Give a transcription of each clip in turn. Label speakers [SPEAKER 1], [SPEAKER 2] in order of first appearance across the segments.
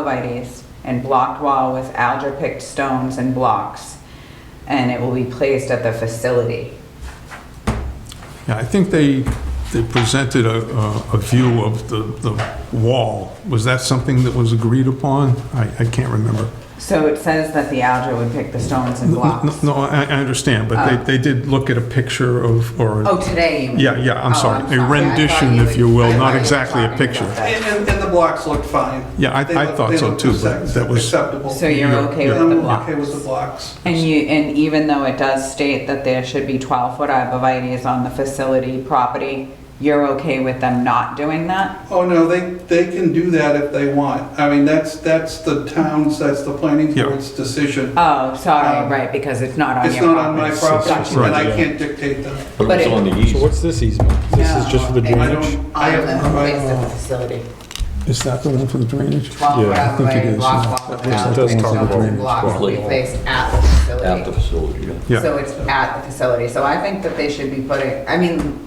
[SPEAKER 1] arborvitae's and blocked wall with alder-picked stones and blocks, and it will be placed at the facility.
[SPEAKER 2] Yeah, I think they, they presented a, a a view of the, the wall. Was that something that was agreed upon? I, I can't remember.
[SPEAKER 1] So it says that the alder would pick the stones and
[SPEAKER 2] No,
[SPEAKER 1] blocks.
[SPEAKER 2] no, I, I understand, but
[SPEAKER 1] Ah.
[SPEAKER 2] they, they did look at a picture of, or,
[SPEAKER 1] Oh, today you mean?
[SPEAKER 2] yeah, yeah, I'm
[SPEAKER 1] Oh,
[SPEAKER 2] sorry, a
[SPEAKER 1] I thought
[SPEAKER 2] rendition,
[SPEAKER 1] were-
[SPEAKER 2] if you will,
[SPEAKER 1] I thought
[SPEAKER 2] not
[SPEAKER 1] you were
[SPEAKER 2] exactly a
[SPEAKER 1] talking
[SPEAKER 2] picture.
[SPEAKER 1] about that.
[SPEAKER 3] And, and- and the blocks looked fine.
[SPEAKER 2] Yeah, I-
[SPEAKER 3] They
[SPEAKER 2] I
[SPEAKER 3] looked-
[SPEAKER 2] thought
[SPEAKER 3] they
[SPEAKER 2] so
[SPEAKER 3] looked
[SPEAKER 2] too, but that was-
[SPEAKER 3] Acceptable.
[SPEAKER 1] So you're
[SPEAKER 2] Yeah,
[SPEAKER 1] okay
[SPEAKER 2] yeah.
[SPEAKER 1] with the
[SPEAKER 3] I'm
[SPEAKER 1] blocks?
[SPEAKER 3] okay with the blocks.
[SPEAKER 1] And you, and even though it does state that there should be 12-foot arborvitae's on the facility property, you're okay with them not doing that?
[SPEAKER 3] Oh, no, they, they can do that if they want. I mean, that's, that's the town's, that's the planning
[SPEAKER 2] Yeah.
[SPEAKER 3] board's decision.
[SPEAKER 1] Oh, sorry,
[SPEAKER 3] Um,
[SPEAKER 1] right, because it's not on
[SPEAKER 3] It's
[SPEAKER 1] your
[SPEAKER 3] not on my
[SPEAKER 1] property.
[SPEAKER 3] property,
[SPEAKER 2] right,
[SPEAKER 3] and I
[SPEAKER 4] yeah.
[SPEAKER 3] can't dictate that.
[SPEAKER 4] But it's
[SPEAKER 1] But it-
[SPEAKER 4] on the
[SPEAKER 5] So
[SPEAKER 4] east.
[SPEAKER 5] what's this easement? This is just for the
[SPEAKER 1] No, it-
[SPEAKER 3] I
[SPEAKER 5] drainage?
[SPEAKER 3] don't, I have provided,
[SPEAKER 1] facility.
[SPEAKER 2] Is that the one for the drainage?
[SPEAKER 1] 12
[SPEAKER 5] Yeah,
[SPEAKER 2] I think it
[SPEAKER 1] driveway,
[SPEAKER 2] is,
[SPEAKER 1] block
[SPEAKER 2] yeah.
[SPEAKER 1] wall with
[SPEAKER 2] It looks
[SPEAKER 5] like
[SPEAKER 1] allocated
[SPEAKER 5] it's talking
[SPEAKER 1] stones and
[SPEAKER 5] about
[SPEAKER 1] blocks will be
[SPEAKER 4] block.
[SPEAKER 1] placed at the facility.
[SPEAKER 4] At the facility, yeah.
[SPEAKER 2] Yeah.
[SPEAKER 1] So it's at the facility, so I think that they should be putting, I mean,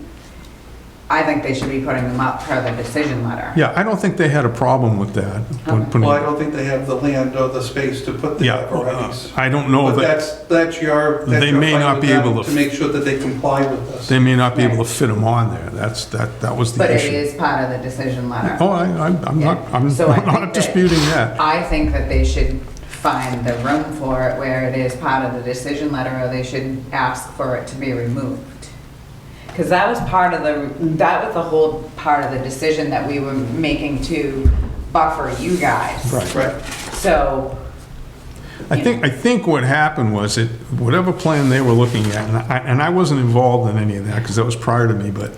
[SPEAKER 1] I think they should be putting them up per the decision letter.
[SPEAKER 2] Yeah, I don't think they had a problem with that. when putting-
[SPEAKER 3] well, I don't think they have the land or the space to put the
[SPEAKER 2] Yeah, uh,
[SPEAKER 3] apparatus.
[SPEAKER 2] I don't know
[SPEAKER 3] But
[SPEAKER 2] that,
[SPEAKER 3] that's, that's your. that's
[SPEAKER 2] They
[SPEAKER 3] your
[SPEAKER 2] may
[SPEAKER 3] fight
[SPEAKER 2] not
[SPEAKER 3] with
[SPEAKER 2] be
[SPEAKER 3] them
[SPEAKER 2] able to-
[SPEAKER 3] To make sure that they comply with us.
[SPEAKER 2] they may not be able to fit them on there. That's, that, that was
[SPEAKER 1] But
[SPEAKER 2] the
[SPEAKER 1] it
[SPEAKER 2] issue.
[SPEAKER 1] is part of the decision letter.
[SPEAKER 2] Oh, I, I'm I'm not,
[SPEAKER 1] Yeah.
[SPEAKER 2] I'm
[SPEAKER 1] So I
[SPEAKER 2] I'm
[SPEAKER 1] think
[SPEAKER 2] not
[SPEAKER 1] that-
[SPEAKER 2] disputing that.
[SPEAKER 1] I think that they should find the room for it where it is part of the decision letter, or they should ask for it to be removed. Because that was part of the, that was the whole part of the decision that we were making to buffer you guys.
[SPEAKER 2] Right.
[SPEAKER 3] Right.
[SPEAKER 1] So,
[SPEAKER 2] I think, I think what happened was it, whatever plan they were looking at, and I, and I wasn't involved in any of that because that was prior to me, but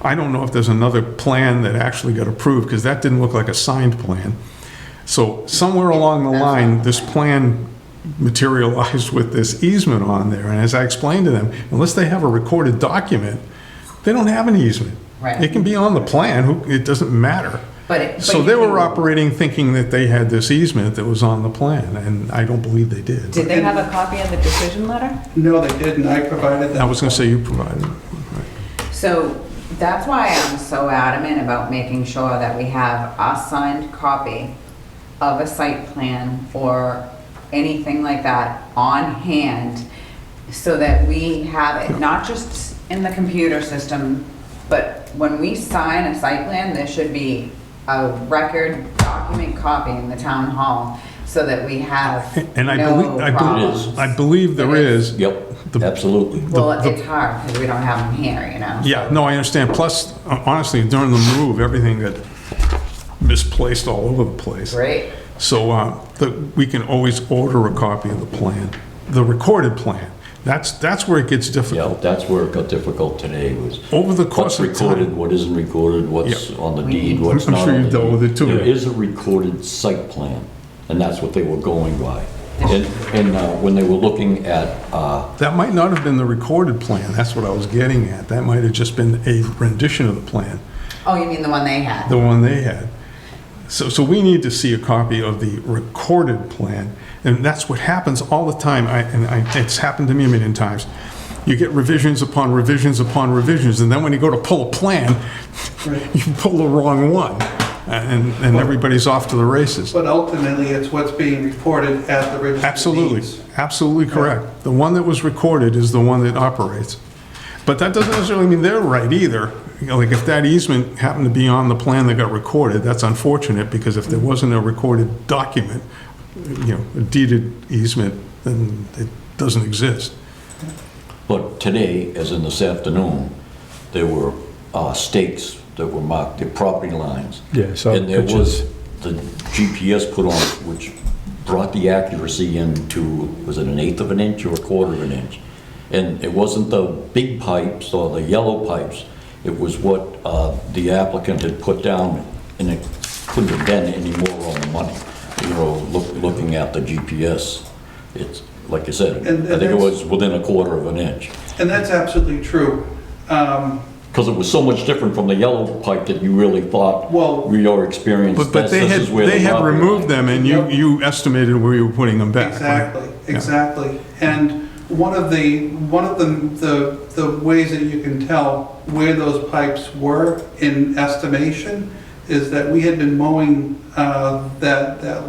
[SPEAKER 2] I don't know if there's another plan that actually got approved because that didn't look like a signed plan. So somewhere along the line, this plan materialized with this easement on there. And as I explained to them, unless they have a recorded document, they don't have an easement.
[SPEAKER 1] Right.
[SPEAKER 2] It can be on the plan, who- it doesn't matter.
[SPEAKER 1] but it. but
[SPEAKER 2] So
[SPEAKER 1] you
[SPEAKER 2] they were
[SPEAKER 1] can-
[SPEAKER 2] operating thinking that they had this easement that was on the plan, and I don't believe they did.
[SPEAKER 1] Did they have a copy of the decision letter?
[SPEAKER 3] No, they didn't, I provided them.
[SPEAKER 2] I was gonna say you provided. it.
[SPEAKER 1] So that's why I'm so adamant about making sure that we have a signed copy of a site plan or anything like that on hand so that we have it, not just in the computer system, but when we sign a site plan, there should be a record document copy in the town hall so that we have
[SPEAKER 2] And I
[SPEAKER 1] no
[SPEAKER 2] believe, I
[SPEAKER 1] problems.
[SPEAKER 2] believe, I believe there is.
[SPEAKER 4] Yep,
[SPEAKER 2] The-
[SPEAKER 4] absolutely.
[SPEAKER 1] Well,
[SPEAKER 2] the- the-
[SPEAKER 1] it's hard because we don't have them here, you know?
[SPEAKER 2] Yeah, no, I understand. Plus, uh, honestly, during the move, everything got misplaced all over the place.
[SPEAKER 1] Great.
[SPEAKER 2] So uh, the- we can always order a copy of the plan, the recorded plan. That's, that's where it gets
[SPEAKER 4] Yeah,
[SPEAKER 2] difficult.
[SPEAKER 4] that's where it got difficult today was
[SPEAKER 2] Over the
[SPEAKER 4] what's
[SPEAKER 2] course of
[SPEAKER 4] recorded,
[SPEAKER 2] time.
[SPEAKER 4] what isn't recorded, what's
[SPEAKER 2] Yeah.
[SPEAKER 4] on the deed, what's
[SPEAKER 2] I'm
[SPEAKER 4] not
[SPEAKER 2] sure
[SPEAKER 4] on
[SPEAKER 2] you
[SPEAKER 4] the
[SPEAKER 2] dealt with it
[SPEAKER 4] deed.
[SPEAKER 2] too.
[SPEAKER 4] There is a recorded site plan, and that's what they were going by. And, and uh, when they were looking at, uh,
[SPEAKER 2] That might not have been the recorded plan, that's what I was getting at. That might have just been a rendition of the plan,
[SPEAKER 1] Oh, you mean the one they had?
[SPEAKER 2] the one they had. So, so we need to see a copy of the recorded plan, and that's what happens all the time, I, and I, it's happened to me a million times. You get revisions upon revisions upon revisions, and then when you go to pull a plan, you pull the wrong one, and, and everybody's off to the races.
[SPEAKER 3] But ultimately, it's what's being reported at the registry of
[SPEAKER 2] Absolutely,
[SPEAKER 3] deeds.
[SPEAKER 2] absolutely correct. The one that was recorded is the one that operates. But that doesn't necessarily mean they're right either. You know, like if that easement happened to be on the plan that got recorded, that's unfortunate because if there wasn't a recorded document, you know, a deeded easement, then it doesn't exist.
[SPEAKER 4] but today, as in this afternoon, there were uh, stakes that were marked, the property lines.
[SPEAKER 5] Yeah, I saw
[SPEAKER 4] And there was
[SPEAKER 5] pictures.
[SPEAKER 4] the GPS put on, which brought the accuracy into, was it an eighth of an inch or a quarter of an inch? And it wasn't the big pipes or the yellow pipes, it was what uh, the applicant had put down, and it couldn't have been any more on the money, you know, look- looking at the GPS. It's, like you said,
[SPEAKER 3] And- and
[SPEAKER 4] I think it
[SPEAKER 3] that's-
[SPEAKER 4] was within a quarter of an inch.
[SPEAKER 3] And that's absolutely true. Um,
[SPEAKER 4] Because it was so much different from the yellow pipe that you really thought,
[SPEAKER 3] Well-
[SPEAKER 4] we are experienced,
[SPEAKER 2] But, but
[SPEAKER 4] this
[SPEAKER 2] they
[SPEAKER 4] this
[SPEAKER 2] had,
[SPEAKER 4] is where the
[SPEAKER 2] they had
[SPEAKER 4] property
[SPEAKER 2] removed
[SPEAKER 4] line-
[SPEAKER 2] them and you,
[SPEAKER 3] Yep.
[SPEAKER 2] you estimated where you were putting them back. right?
[SPEAKER 3] Exactly,
[SPEAKER 2] Yeah.
[SPEAKER 3] exactly. And one of the, one of the, the, the ways that you can tell where those pipes were in estimation is that we had been mowing uh, that, that